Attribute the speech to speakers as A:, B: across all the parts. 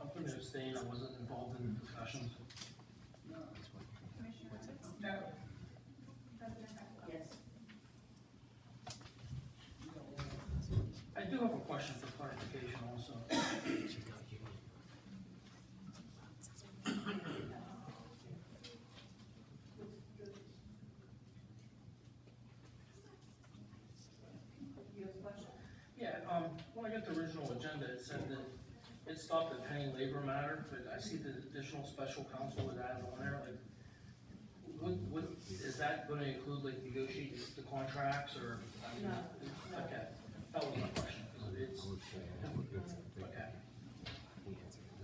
A: I'm gonna abstain, I wasn't involved in the discussions.
B: Commissioner Evans? President Beckler?
C: Yes.
A: I do have a question for clarification also.
C: You have a question?
A: Yeah, um, when I got the original agenda, it said that it stopped at pending labor matter, but I see the additional special counsel was added on there, like, what, what, is that gonna include, like, negotiating the contracts, or? I mean,
C: No, no.
A: Okay, that was my question, 'cause it's, okay.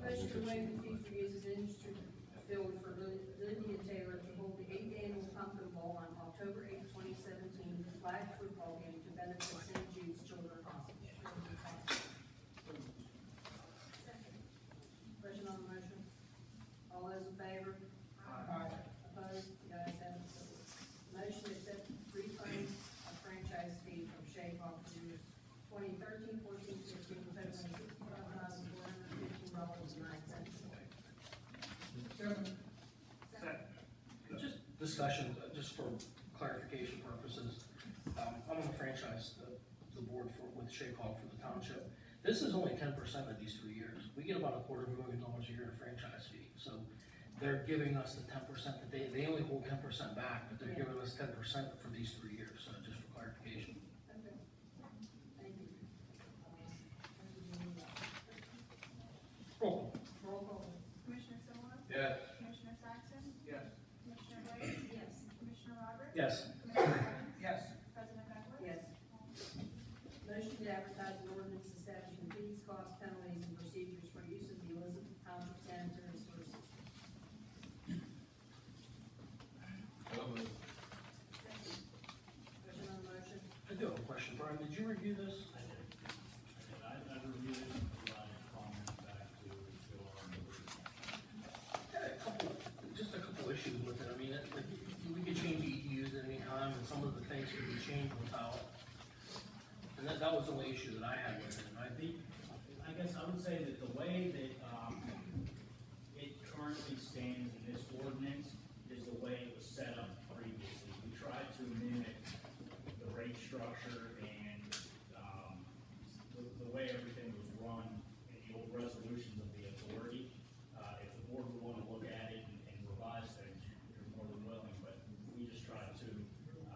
C: Motion to waive the fee for use of industry field for Lin- Lindy and Taylor to hold the eighth annual pumpkin bowl on October eighth, twenty seventeen, flag football game to benefit St. Jude's Children's Hospital. Question on the motion? All those in favor? Aye. Opposed? The ayes have it. So moved. Motion to accept refund of franchise fee from Shade Rock for years 2013, 14, 15, totaling sixty-five thousand four hundred fifteen dollars and nine cents.
A: Just discussion, uh, just for clarification purposes, um, I'm on the franchise, the, the board for, with Shake Hawk for the township. This is only ten percent of these three years, we get about a quarter of a million dollars a year in franchise fee, so they're giving us the ten percent that they, they only hold ten percent back, but they're
C: Yeah.
A: giving us ten percent for these three years, so just for clarification.
C: Okay. Thank you.
A: Roll call.
C: Roll call.
B: Commissioner Silver?
A: Yes.
B: Commissioner Saxon?
A: Yes.
B: Commissioner Blake?
C: Yes.
B: Commissioner Roberts?
A: Yes.
B: Commissioner Evans?
A: Yes.
B: President Beckler?
C: Yes. Motion to advertise an ordinance establishing fees, costs, penalties, and procedures for use of the Elizabeth Township sanitary sources. Question on the motion?
A: I do have a question, Brian, did you review this?
D: I did. I did. I, I reviewed it and provided comments back to, to our members.
A: Yeah, a couple, just a couple issues with it, I mean, it- like, we could change EDUs at any time, and some of the things could be changed without. And that, that was the only issue that I had with it, and I think,
D: I guess I would say that the way that, um, it currently stands in this ordinance is the way it was set up previously. We tried to mimic the rate structure and, um, the, the way everything was run in the old resolutions of the authority. Uh, if the board would wanna look at it and- and revise things, you're more than willing, but we just tried to,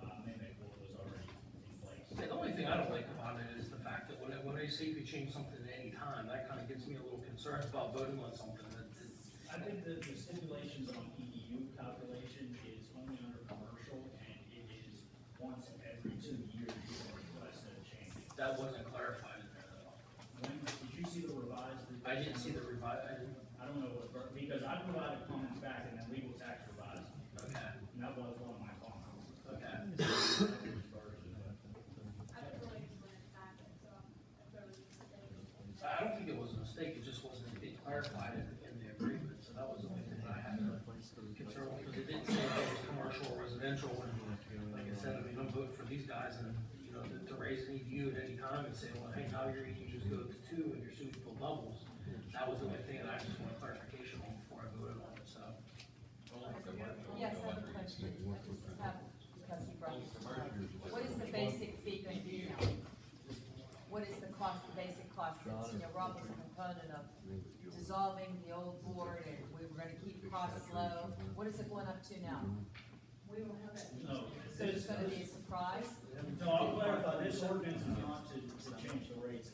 D: uh, mimic what was already in place.
A: the only thing I don't like about it is the fact that when, I- when they say you could change something at any time, that kinda gets me a little concerned about voting on something that, that-
D: I think that the stipulations on EDU calculation is only under commercial, and it is once every two years you can request a change.
A: that wasn't clarified in there at all.
D: When, did you see the revised?
A: I didn't see the revi, I didn't,
D: I don't know what, because I provided comments back and then legal tax revised,
A: okay,
D: and that was one of my comments.
A: okay.
B: I was related to the packet, so I'm very excited.
A: I don't think it was a mistake, it just wasn't, it clarified it in the agreement, so that was the only thing that I had to concern with, because it didn't say if it was commercial or residential, and like I said, I mean, I'm voting for these guys, and, you know, to, to raise an EDU at any time and say, well, hey, now your EDUs go to two, and your suitable levels, that was the only thing that I just wanted clarification on before I voted on it, so.
E: Yes, I have a question. I just have, because you brought this up. What is the basic fee going to be now? What is the cost, the basic cost? It's, you know, Rob was a component of dissolving the old board and we were gonna keep costs low. What is it going up to now?
C: We will have that.
D: No,
E: So it's gonna be a surprise?
D: no, I'll clarify, this ordinance is not to, to change the rates uh, Um,